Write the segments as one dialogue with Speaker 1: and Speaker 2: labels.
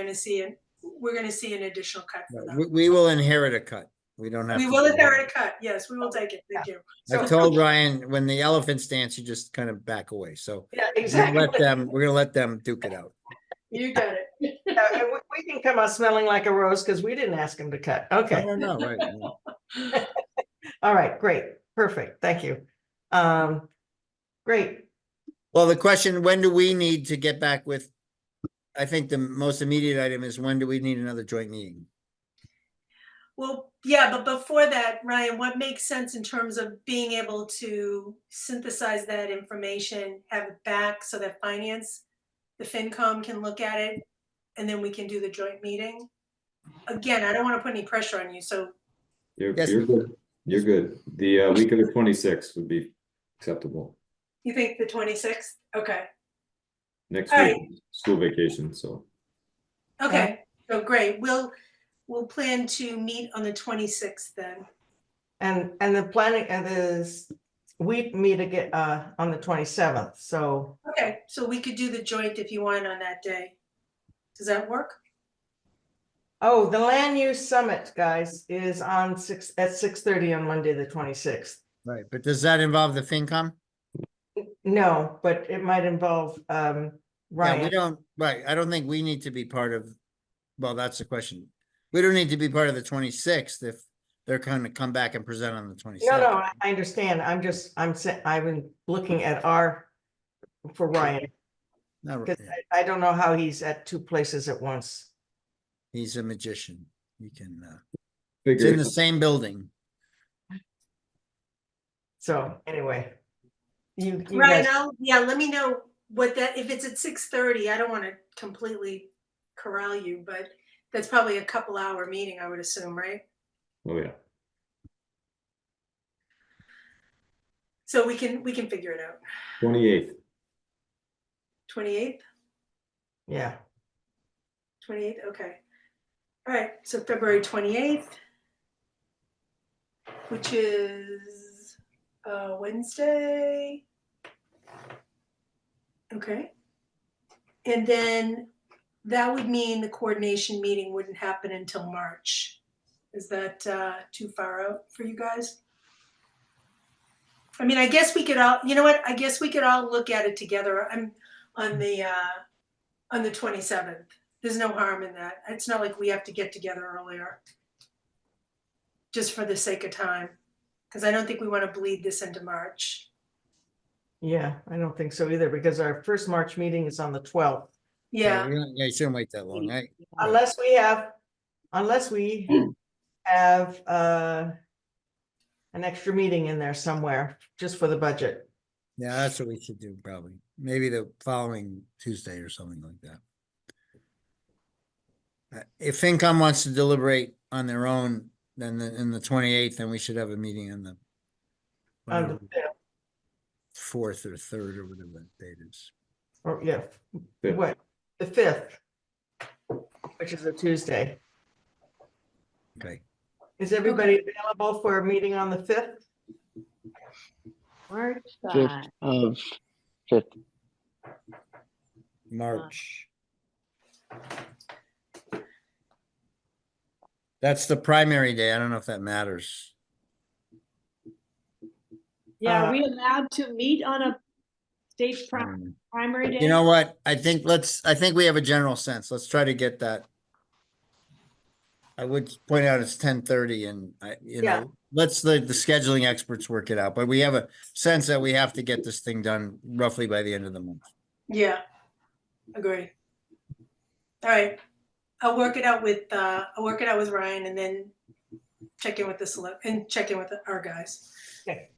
Speaker 1: gonna see, an- we're gonna see an additional cut for
Speaker 2: No,
Speaker 1: them.
Speaker 2: We, we will inherit a cut. We don't have.
Speaker 1: We
Speaker 2: to
Speaker 1: will
Speaker 2: do
Speaker 1: inherit a cut, yes, we will take it, thank you.
Speaker 2: that. I've told Ryan, when the elephants dance, you just kind of back away. So
Speaker 3: Yeah,
Speaker 2: we're gonna
Speaker 3: exactly.
Speaker 2: let them, we're gonna let them duke it out.
Speaker 1: You got it.
Speaker 3: Yeah, and we- We can come out smelling like a rose because we didn't ask him to cut.
Speaker 2: I
Speaker 3: Okay,
Speaker 2: don't know, right? no. Uh-huh.
Speaker 3: all right, great, perfect, thank you. Um, great,
Speaker 2: Well, the question, when do we need to get back with? I think the most immediate item is when do we need another joint meeting?
Speaker 1: Well, yeah, but before that, Ryan, what makes sense in terms of being able to synthesize that information, have it back so that finance, the FinCom can look at it, and then we can do the joint meeting? Again, I don't wanna put any pressure on you, so
Speaker 4: You're,
Speaker 2: Yes.
Speaker 4: you're good. You're good. The uh, week of the twenty-sixth would be acceptable.
Speaker 1: you think the twenty-sixth? Okay,
Speaker 4: Next
Speaker 1: All right.
Speaker 4: week, school vacation, so
Speaker 1: okay, so great, we'll, we'll plan to meet on the twenty-sixth then.
Speaker 3: and, and the planning, and this, we meet again, uh, on the twenty-seventh, so,
Speaker 1: Okay, so we could do the joint if you want on that day. Does that work?
Speaker 3: oh, the land use summit, guys, is on six, at six thirty on Monday, the twenty-sixth.
Speaker 2: Right, but does that involve the FinCom?
Speaker 3: No, but it might involve, um,
Speaker 2: Yeah, we
Speaker 3: Ryan.
Speaker 2: don't, right, I don't think we need to be part of, well, that's the question. We don't need to be part of the twenty-sixth if they're gonna come back and present on the
Speaker 3: No,
Speaker 2: twenty-seventh.
Speaker 3: no, I- I understand, I'm just, I'm, sa- I've been looking at our, for Ryan.
Speaker 2: no.
Speaker 3: Because I, I don't know how he's at two places at once.
Speaker 2: He's a magician. He can, uh, it's
Speaker 4: figure
Speaker 2: in
Speaker 4: it
Speaker 2: the same building.
Speaker 3: So anyway. You, you
Speaker 1: Right,
Speaker 3: guys,
Speaker 1: now, yeah, let me know what that, if it's at six thirty, I don't want to completely corral you, but that's probably a couple hour meeting, I would assume, right?
Speaker 4: oh, yeah.
Speaker 1: So we can, we can figure it out.
Speaker 4: Twenty-eighth,
Speaker 1: Twenty-eighth,
Speaker 3: yeah,
Speaker 1: twenty-eighth, okay. All right, so February twenty-eighth, which is uh Wednesday. Okay. And then that would mean the coordination meeting wouldn't happen until March. Is that uh, too far out for you guys? I mean, I guess we could all, you know what, I guess we could all look at it together. I'm on the, uh, on the 27th. There's no harm in that. It's not like we have to get together earlier. Just for the sake of time, because I don't think we want to bleed this into March.
Speaker 3: yeah, I don't think so either, because our first March meeting is on the twelfth.
Speaker 1: Yeah,
Speaker 2: we don't- Yeah, you shouldn't wait that long, right? Right.
Speaker 3: Unless we have, unless we have, uh, an extra meeting in there somewhere, just for the budget.
Speaker 2: Yeah, that's what we should do probably. Maybe the following Tuesday or something like that. Uh, If FinCom wants to deliberate on their own, then the, in the twenty-eighth, then we should have a meeting on the
Speaker 3: on
Speaker 2: whatever,
Speaker 3: the fifth,
Speaker 2: fourth or third or whatever that date is.
Speaker 3: Or, yeah,
Speaker 4: Fifth.
Speaker 3: what, the fifth? Which is a Tuesday.
Speaker 2: Okay,
Speaker 3: Is everybody available for a meeting on the fifth?
Speaker 5: March
Speaker 6: Fifth
Speaker 5: five.
Speaker 6: of, fifth,
Speaker 2: March. That's the primary day. I don't know if that matters.
Speaker 5: Yeah,
Speaker 3: Uh,
Speaker 5: are we allowed to meet on a state
Speaker 2: I
Speaker 5: pri-
Speaker 2: don't know.
Speaker 5: primary day?
Speaker 2: You know what? I think let's, I think we have a general sense. Let's try to get that. I would point out it's ten thirty and I, you
Speaker 3: Yeah.
Speaker 2: know, let's the, the scheduling experts work it out, but we have a sense that we have to get this thing done roughly by the end of the month.
Speaker 1: yeah, agree. All right, I'll work it out with, uh, I'll work it out with Ryan and then check in with the select, and check in with our guys.
Speaker 3: Okay.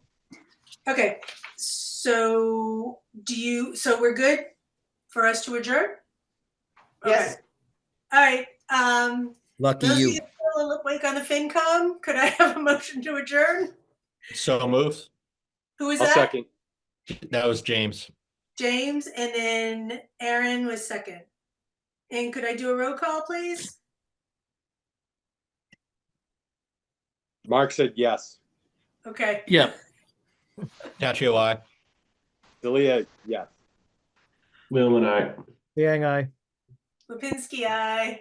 Speaker 1: Okay, so do you, so we're good for us to adjourn?
Speaker 3: Yes.
Speaker 1: Okay. All right, um,
Speaker 2: Lucky
Speaker 1: Those of
Speaker 2: you.
Speaker 1: you still awake on the FinCom, could I have a motion to adjourn?
Speaker 7: So moved.
Speaker 1: Who is
Speaker 7: I'll
Speaker 1: that?
Speaker 7: second. That was James.
Speaker 1: James, and then Aaron was second. And could I do a roll call, please?
Speaker 8: Mark said yes.
Speaker 1: Okay,
Speaker 7: Yep. Tatchio, I.
Speaker 8: Delia, yes.
Speaker 4: Leland, I.
Speaker 1: Leland, Lipinski, aye.